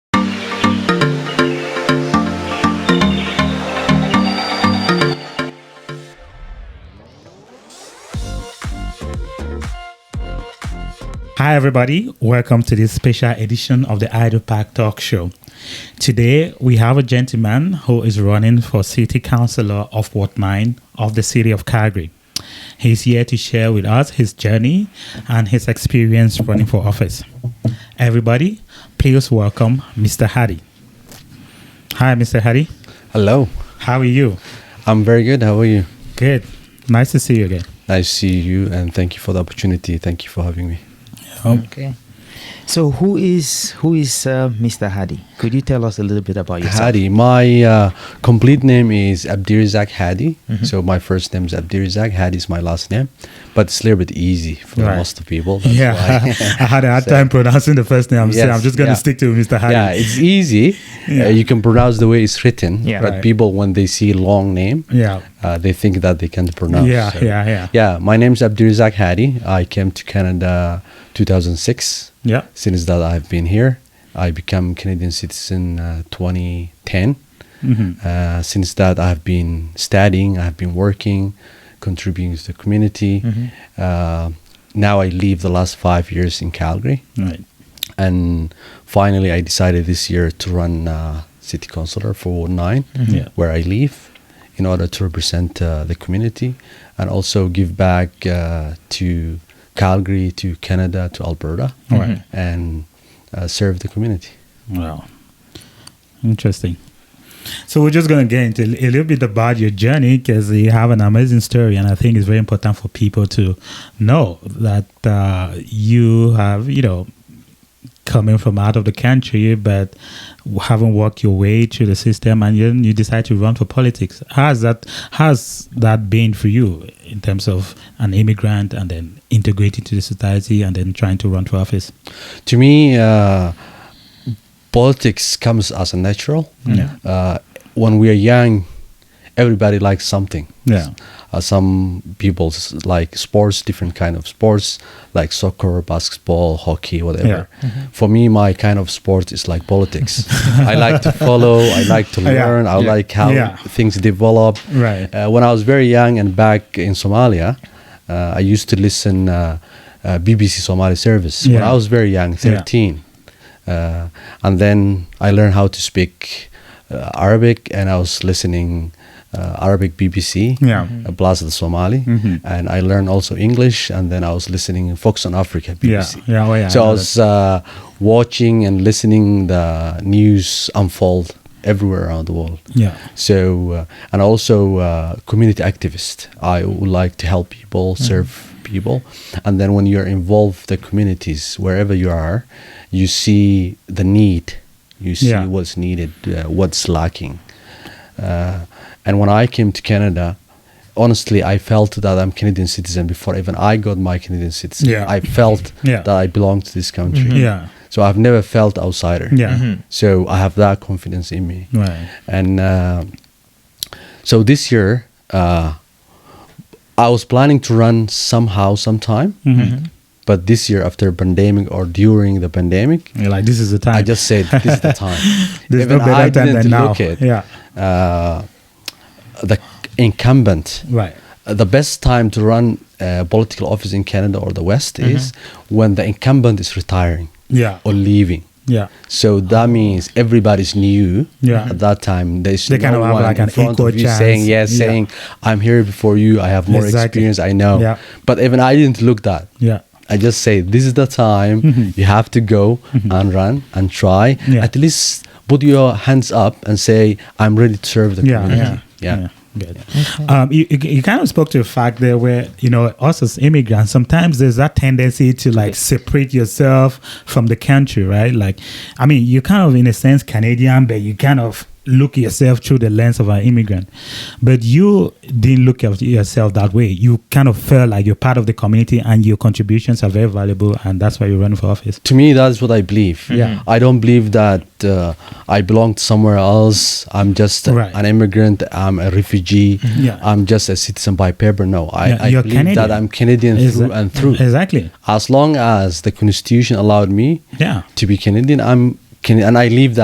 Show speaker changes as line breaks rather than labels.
Hi, everybody. Welcome to this special edition of the Idle Park Talk Show. Today, we have a gentleman who is running for City Councillor of Ward 9 of the City of Calgary. He's here to share with us his journey and his experience running for office. Everybody, please welcome Mr. Hardy. Hi, Mr. Hardy.
Hello.
How are you?
I'm very good. How are you?
Good. Nice to see you again.
Nice to see you and thank you for the opportunity. Thank you for having me. Oh,
Okay. So who is who is uh, Mr. Hadi? Could you tell us a little bit about yourself?
Hadi. My uh, complete name is Abdirizak Hadi.
Mm-hmm.
So my first name is Abdirizak. Hadi is my last name. But it's a little bit easy for
Right.
most people. That's
Yeah,
why.
I had a hard time pronouncing the first name. so
Yes,
I'm just going to
yeah.
stick to Mr. Hardy.
yeah, it's easy.
Yeah.
Uh, you can pronounce the way it's written.
Yeah.
But
Right.
people, when they see long name,
yeah.
uh, they think that they can't pronounce.
Yeah, yeah, yeah.
Yeah, my name is Abdirizak Hadi. I came to Canada 2006.
Yeah.
Since that I've been here, I became Canadian citizen uh, 2010. Uh, since that, I've been studying, I've been working, contributing to the community. Uh, now I live the last five years in Calgary,
Right.
and finally I decided this year to run uh, city councillor for Ward 9
Yeah.
where I live in order to represent uh, the community and also give back uh, to Calgary, to Canada, to Alberta,
Right.
and uh, serve the community.
Wow. Interesting. So we're just going to get into a little bit about your journey because you have an amazing story, and I think it's very important for people to know that uh, you have, you know, coming from out of the country, but haven't worked your way through the system, and then you decide to run for politics. How's that? How's that been for you in terms of an immigrant and then integrating to the society and then trying to run for office?
To me, uh, politics comes as a natural.
Mm. Yeah.
Uh, when we are young, everybody likes something.
Yeah.
Uh, some people s- like sports, different kind of sports, like soccer, basketball, hockey, whatever.
Yeah.
For me, my kind of sport is like politics. I like to follow. I like to
Yeah.
learn. I
Yeah.
like how
Yeah.
things develop.
Right.
Uh, when I was very young and back in Somalia, uh, I used to listen uh, uh, BBC Somali service. When
Yeah.
I was very young,
Yeah.
thirteen, uh, and then I learned how to speak uh, Arabic, and I was listening uh, Arabic BBC
Yeah.
uh, Plaza de Somali,
Mhm.
and I learned also English, and then I was listening Fox on Africa BBC.
Yeah, yeah, oh, yeah,
So
I
I
know
was uh, watching and listening the news unfold everywhere around the world.
Yeah.
So uh, and also uh, community activist. I would like to help people,
Mm-hmm.
serve people, and then when you're involved the communities wherever you are, you see the need, you see
Yeah.
what's needed, uh, what's lacking. Uh, and when I came to Canada, honestly, I felt that I'm Canadian citizen before even I got my Canadian citizen.
Yeah.
I felt
Yeah. Mm-hmm.
that I belong to this country.
Yeah.
So I've never felt outsider.
Yeah.
So I have that confidence in me.
Hmm. Right.
And uh, so this year, uh, I was planning to run somehow, sometime.
Hmm. Mm-hmm.
But this year, after pandemic or during the pandemic,
You're like, this is the time.
I just said this is the time.
There's no
Even
better
I
time
didn't
than now.
look at
Yeah.
uh, the incumbent.
Right.
Uh, The best time to run a political office in Canada or the West
Mm-hmm.
is when the incumbent is retiring
Yeah.
or leaving.
Yeah.
So that means everybody's new
Yeah.
at that time. There's
They
no
kind of have
one
like
in
an
front
equal
of you
chance.
saying yes,
Yeah.
saying I'm here before you. I have more
Exactly.
experience. I know.
Yeah.
But even I didn't look that.
Yeah. Mm-hmm.
I just say this is the time you have to go and run and try.
Yeah.
At least put your hands up and say I'm ready to serve the
Yeah.
community.
Yeah.
Mm-hmm. Yeah.
Good. Um, you, you you kind of spoke to a fact there where, you know, us as immigrants, sometimes there's that tendency to like separate yourself from the country, right? Like, I mean, you're kind of, in a sense, Canadian, but you kind of look yourself through the lens of an immigrant. But you didn't look at yourself that way. You kind of felt like you're part of the community and your contributions are very valuable, and that's why you're running for office.
to me that's what i believe
Yeah.
i don't believe that uh, i belong to somewhere else i'm just a-
Right. Mm-hmm.
an immigrant i'm a refugee
Yeah.
i'm just a citizen by paper no i,
Yeah,
I
you're
believe that
Canadian.
i'm canadian through
Exa-
and through
Exactly.
as long as the constitution allowed me
Yeah.
to be canadian i'm Can- and i live that